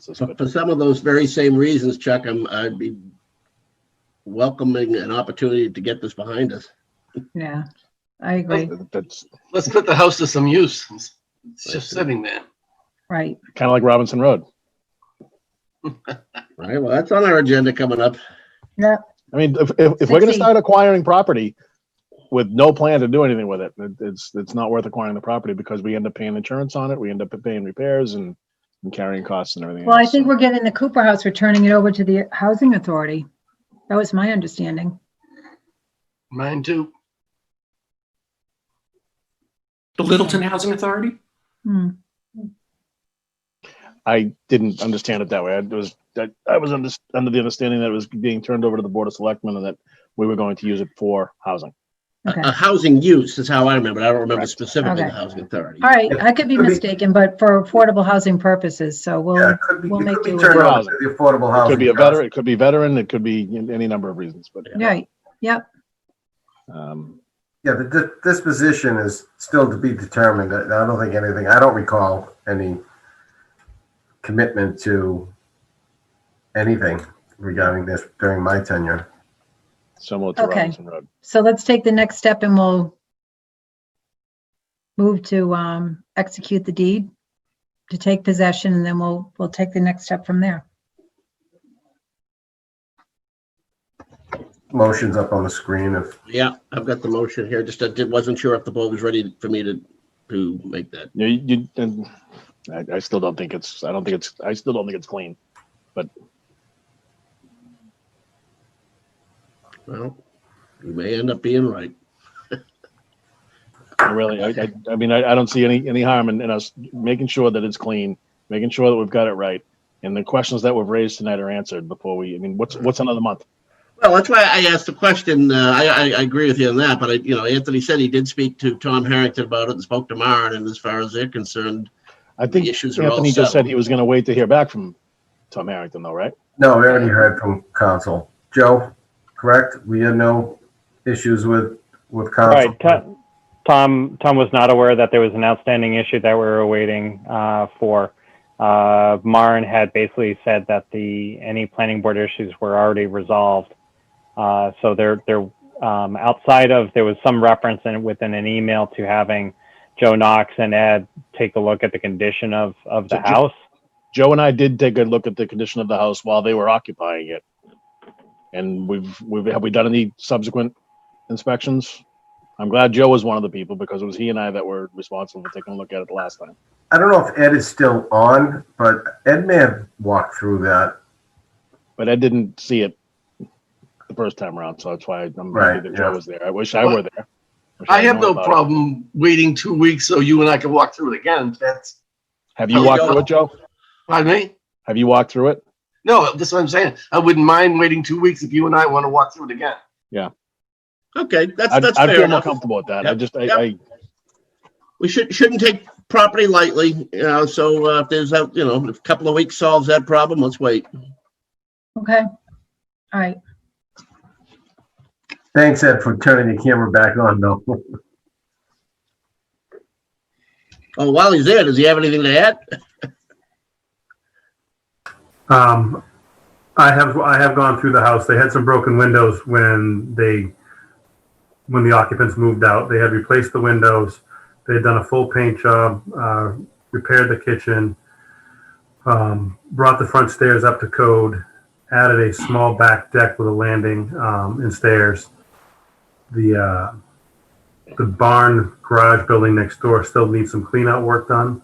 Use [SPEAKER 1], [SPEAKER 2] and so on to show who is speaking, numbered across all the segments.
[SPEAKER 1] So it's
[SPEAKER 2] For
[SPEAKER 1] good.
[SPEAKER 2] for some of those very same reasons, Chuck, I'm, I'd be welcoming an opportunity to get this behind us.
[SPEAKER 3] Yeah, I agree.
[SPEAKER 1] That's
[SPEAKER 4] Let's put the house to some use. It's it's just sitting there.
[SPEAKER 3] Right.
[SPEAKER 1] kind of like Robinson Road.
[SPEAKER 2] All Right, well, that's on our agenda coming up.
[SPEAKER 1] I mean, if, if, if we're going to
[SPEAKER 3] Succeed.
[SPEAKER 1] start acquiring property with no plan to do anything with it, it- it's, it's not worth acquiring the property because we end up paying insurance on it. We end up paying repairs and, and carrying costs and everything.
[SPEAKER 3] Well, I
[SPEAKER 1] else.
[SPEAKER 3] think
[SPEAKER 1] So-
[SPEAKER 3] we're getting the Cooper House, we're turning it over to the Housing Authority. That was my understanding.
[SPEAKER 4] Mine too.
[SPEAKER 5] The Littleton Housing Authority?
[SPEAKER 3] Hmm.
[SPEAKER 1] I didn't understand it that way. I was, I, I was under, under the understanding that it was being turned over to the Board of Selectmen and that we were going to use it for housing.
[SPEAKER 3] Okay.
[SPEAKER 2] A housing use is how I remember. it. I don't remember
[SPEAKER 1] Correct.
[SPEAKER 2] specifically the
[SPEAKER 3] Okay.
[SPEAKER 2] housing authority.
[SPEAKER 3] All right, I could be
[SPEAKER 6] Could be-
[SPEAKER 3] mistaken, but for affordable housing purposes, so
[SPEAKER 6] Yeah,
[SPEAKER 3] we'll,
[SPEAKER 6] it could be,
[SPEAKER 3] we'll
[SPEAKER 6] it
[SPEAKER 3] make
[SPEAKER 6] could be
[SPEAKER 3] do with
[SPEAKER 6] turned
[SPEAKER 3] it.
[SPEAKER 6] over to the affordable
[SPEAKER 1] It
[SPEAKER 6] housing.
[SPEAKER 1] could be a
[SPEAKER 6] trust.
[SPEAKER 1] veteran, it could be veteran, it could be any number of reasons, but,
[SPEAKER 3] right,
[SPEAKER 1] um,
[SPEAKER 6] Yeah, the di- disposition is still to be determined. I I don't think anything, I don't recall any commitment to anything regarding this during my tenure.
[SPEAKER 1] similar to
[SPEAKER 3] Okay.
[SPEAKER 1] Robinson Road.
[SPEAKER 3] so let's take the next step and we'll move to um, execute the deed, to take possession, and then we'll, we'll take the next step from there.
[SPEAKER 6] Motion's up on the screen if,
[SPEAKER 2] Yeah, I've got the motion here. Just I did- wasn't sure if the board was ready for me to, to make that.
[SPEAKER 1] You, you, and I, I still don't think it's, I don't think it's, I still don't think it's clean.
[SPEAKER 2] Well, you may end up being right.
[SPEAKER 1] I Really, I, I, I mean, I, I don't see any, any harm in, in us making sure that it's clean, making sure that we've got it right. And the questions that we've raised tonight are answered before we, I mean, what's, what's another month?
[SPEAKER 2] Well, that's why I asked the question. Uh, I, I, I agree with you on that, but I, you know, Anthony said he did speak to Tom Harrington about it and spoke to Maren. And as far as they're concerned,
[SPEAKER 1] I think
[SPEAKER 2] The issues are all
[SPEAKER 1] Anthony just said
[SPEAKER 2] settled.
[SPEAKER 1] he was gonna wait to hear back from Tom Harrington though, right?
[SPEAKER 6] no, we already heard from council. Joe, correct? We had no issues with, with
[SPEAKER 7] All right,
[SPEAKER 6] council.
[SPEAKER 7] To- Tom, Tom was not aware that there was an outstanding issue that we were waiting uh, for. Uh, Maren had basically said that the, any planning board issues were already resolved. Uh, So there, there, um, outside of, there was some reference in, within an email to having Joe Knox and Ed take a look at the condition of, of the
[SPEAKER 1] So Jo-
[SPEAKER 7] house.
[SPEAKER 1] Joe and I did take a look at the condition of the house while they were occupying it. And we've, we've, have we done any subsequent inspections? I'm glad Joe was one of the people because it was he and I that were responsible for taking a look at it the last time.
[SPEAKER 6] I don't know if Ed is still on, but Ed may have walked through that.
[SPEAKER 1] But I didn't see it the first time around, so that's why I'm
[SPEAKER 6] Right,
[SPEAKER 1] happy that Joe
[SPEAKER 6] yeah.
[SPEAKER 1] was there. I wish I were there. Wish
[SPEAKER 4] I
[SPEAKER 1] I'd
[SPEAKER 4] have
[SPEAKER 1] known
[SPEAKER 4] no
[SPEAKER 1] about it.
[SPEAKER 4] problem waiting two weeks so you and I can walk through it again. That's,
[SPEAKER 1] Have
[SPEAKER 2] Oh,
[SPEAKER 1] you
[SPEAKER 2] you
[SPEAKER 1] walked
[SPEAKER 2] don't-
[SPEAKER 1] through it, Joe?
[SPEAKER 4] pardon me?
[SPEAKER 1] Have you walked through it?
[SPEAKER 4] No, that's what I'm saying. I wouldn't mind waiting two weeks if you and I want to walk through it again.
[SPEAKER 2] okay, that's
[SPEAKER 1] I'd,
[SPEAKER 2] that's
[SPEAKER 1] I'd
[SPEAKER 2] fair
[SPEAKER 1] feel more
[SPEAKER 2] enough.
[SPEAKER 1] comfortable with that. I
[SPEAKER 2] Yep,
[SPEAKER 1] just, I,
[SPEAKER 2] yep.
[SPEAKER 1] I,
[SPEAKER 2] We should shouldn't take property lightly. You know, so uh, if there's a you know, if a couple of weeks solves that problem, let's wait.
[SPEAKER 3] Okay, all right.
[SPEAKER 6] Thanks, Ed, for turning the camera back on, though.
[SPEAKER 2] Oh, while he's there, does he have anything to add?
[SPEAKER 8] Um, I have, I have gone through the house. They had some broken windows when they, when the occupants moved out. They had replaced the windows. They had done a full paint job, uh, repaired the kitchen, um, brought the front stairs up to code, added a small back deck with a landing, um, and stairs. The, uh, the barn garage building next door still needs some clean out work done,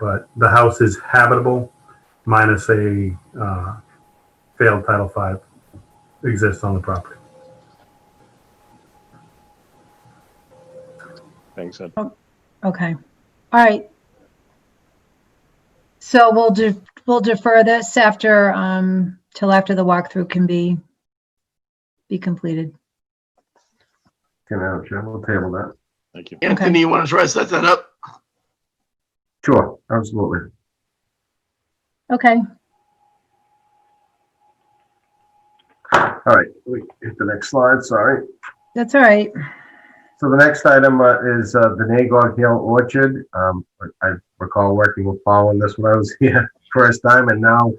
[SPEAKER 8] but the house is habitable minus a uh, failed Title V exists on the property.
[SPEAKER 1] thanks. Ed.
[SPEAKER 3] Okay, all right. So we'll do, we'll defer this after, um, till after the walkthrough can be, be completed.
[SPEAKER 6] Can I, Joe, we'll table that.
[SPEAKER 1] Thank you.
[SPEAKER 4] Anthony, you want to try to set that up?
[SPEAKER 6] Sure, absolutely.
[SPEAKER 3] Okay,
[SPEAKER 6] All right, we hit the next slide, sorry.
[SPEAKER 3] that's all right.
[SPEAKER 6] So the next item uh, is uh, the Nagog Hill Orchard. Um, I recall working with Paul on this when I was here. first time, and now